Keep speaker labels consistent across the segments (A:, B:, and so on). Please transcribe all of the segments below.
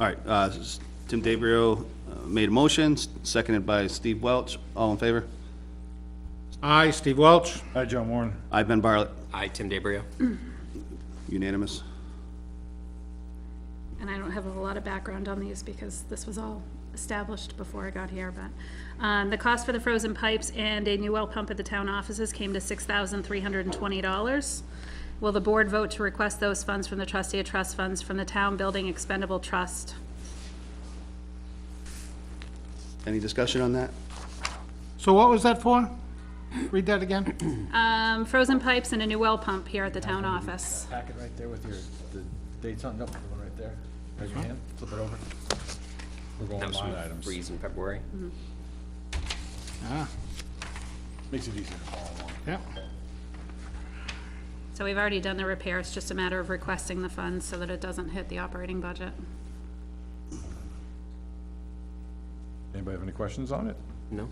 A: All right, uh, s- Tim DeBrio uh, made a motion, s- seconded by Steve Welch. All in favor?
B: Aye, Steve Welch.
C: Hi, John Warren.
A: I, Ben Barlett,
D: Aye, Tim DeBrio.
A: unanimous.
E: and I don't have a lot of background on these because this was all established before I got here, but, um, the cost for the frozen pipes and a new well pump at the town offices came to six thousand three hundred and twenty dollars. Will the board vote to request those funds from the trustee of trust funds from the town building expendable trust?
A: Any discussion on that?
B: So what was that for? Read that again.
E: Um, frozen pipes and a new well pump here at the town office.
C: Packet right there with your, the dates on, nope, the one right there. Raise your hand, flip it over. We're
D: That
C: going
D: was
C: line
D: from
C: items.
D: Breeze in February.
B: Ah,
C: Makes it easier to follow along.
B: yeah.
E: So we've already done the repair, it's just a matter of requesting the funds so that it doesn't hit the operating budget.
C: Anybody have any questions on it?
D: No?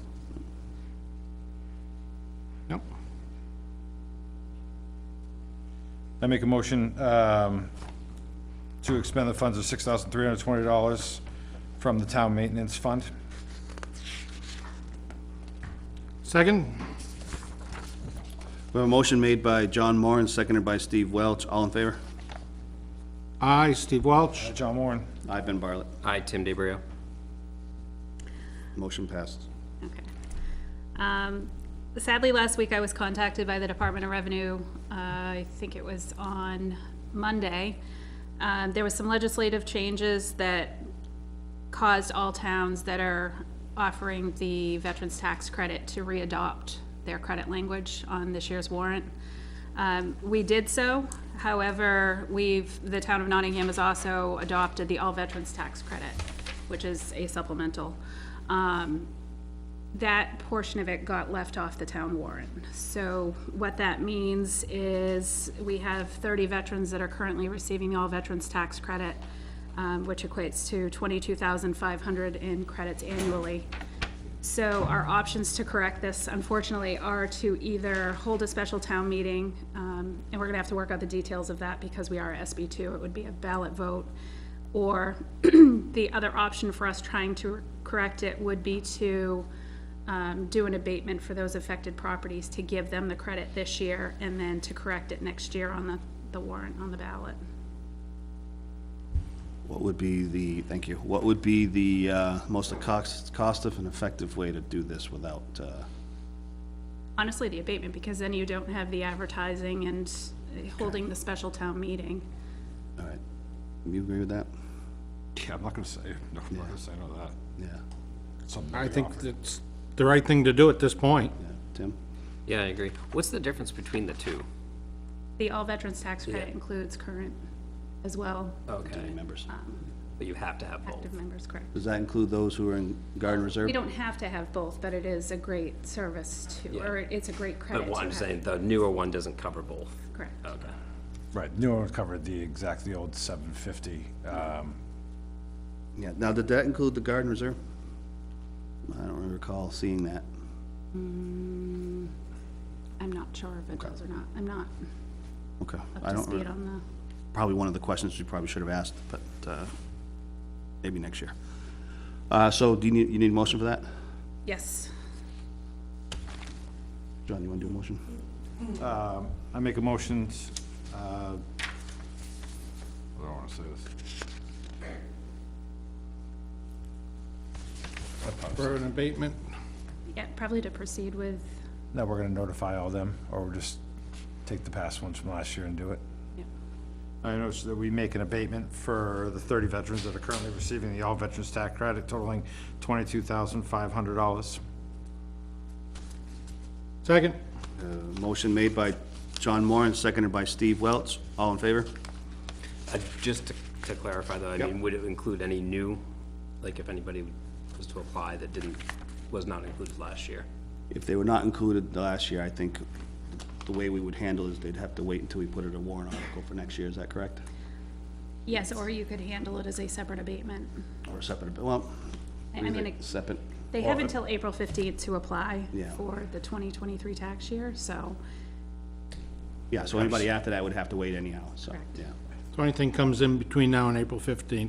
B: Nope.
C: I make a motion um, to expend the funds of $6,320 from the town maintenance fund.
B: Second?
A: We have a motion made by John Moran, seconded by Steve Welch. All in favor?
B: Aye, Steve Welch.
C: Hi, Uh, John Warren.
A: I, Ben Barlett,
D: Aye, Tim DeBrio.
A: motion passed.
E: Okay. Um, Sadly, last week I was contacted by the Department of Revenue, uh, I think it was on Monday. Um, There was some legislative changes that caused all towns that are offering the veterans tax credit to readopt their credit language on this year's warrant. Um, we did so, however, we've, the town of Nottingham has also adopted the all veterans tax credit, which is a supplemental. Um, that portion of it got left off the town warrant. So what that means is we have 30 veterans that are currently receiving the all veterans tax credit, um, which equates to 22,500 in credits annually. So our options to correct this unfortunately are to either hold a special town meeting, um, and we're gonna have to work out the details of that because we are SB two, it would be a ballot vote. Or the other option for us trying to correct it would be to um, do an abatement for those affected properties to give them the credit this year and then to correct it next year on the, the warrant on the ballot.
A: What would be the, thank you, what would be the uh, most cost, cost-effective and effective way to do this without, uh,
E: Honestly, the abatement, because then you don't have the advertising and uh, holding the special town meeting.
A: all right, you agree with that?
C: Yeah, I'm not going to say, no, I'm not going to say no to that.
A: Yeah,
C: It's something
B: I
C: we
B: think
C: offer.
B: it's the right thing to do at this point.
A: yeah, Tim?
D: Yeah, I agree. What's the difference between the two?
E: The all veterans tax credit
D: Yeah. Uh,
E: includes current as well,
A: Any
D: Okay,
A: members?
D: but you have to have both.
E: active members, correct?
A: Does that include those who are in Garden Reserve?
E: We don't have to have both, but it is a great service to,
D: Yeah.
E: or it's a great credit
D: But
E: to
D: what I'm
E: have.
D: saying, Oh. the newer one doesn't cover both.
E: Correct.
D: Okay.
C: Right, new one covered the exact, the old 750. um,
A: Yeah, now, did that include the Garden Reserve? I don't really recall seeing that.
E: I'm not sure if it does or not. I'm not
A: Okay, I
E: up to
A: don't,
E: speed
A: re-
E: on
A: probably one of the questions you probably should have asked, but uh, maybe next year. Uh, So do you need, you need a motion for that?
E: the, yes.
A: John, you want to do a motion?
C: I make a motion, uh, I don't want to say this.
B: For an abatement,
E: Yeah, probably to proceed with,
C: Now we're gonna notify all them, or we'll just take the past ones from last year and do it.
E: yeah.
C: I notice that we make an abatement for the thirty veterans that are currently receiving the all veterans tax credit totaling twenty-two thousand five hundred dollars.
B: second?
A: Uh, Motion made by John Moore and seconded by Steve Welch. All in favor?
D: Uh, Just to- to clarify though, I mean, would it include any new, like if anybody was to apply that didn't, was not included last year?
A: If they were not included last year, I think the way we would handle is they'd have to wait until we put it a warrant article for next year, is that correct?
E: Yes, or you could handle it as a separate abatement.
A: Or a separate, well,
E: I I mean, it-
A: separate,
E: they have until April 15th to apply
A: Yeah.
E: for the 2023 tax year, so,
A: yeah, so anybody after that would have to wait anyhow, so,
E: Correct.
A: yeah.
B: So anything comes in between now and April 15th,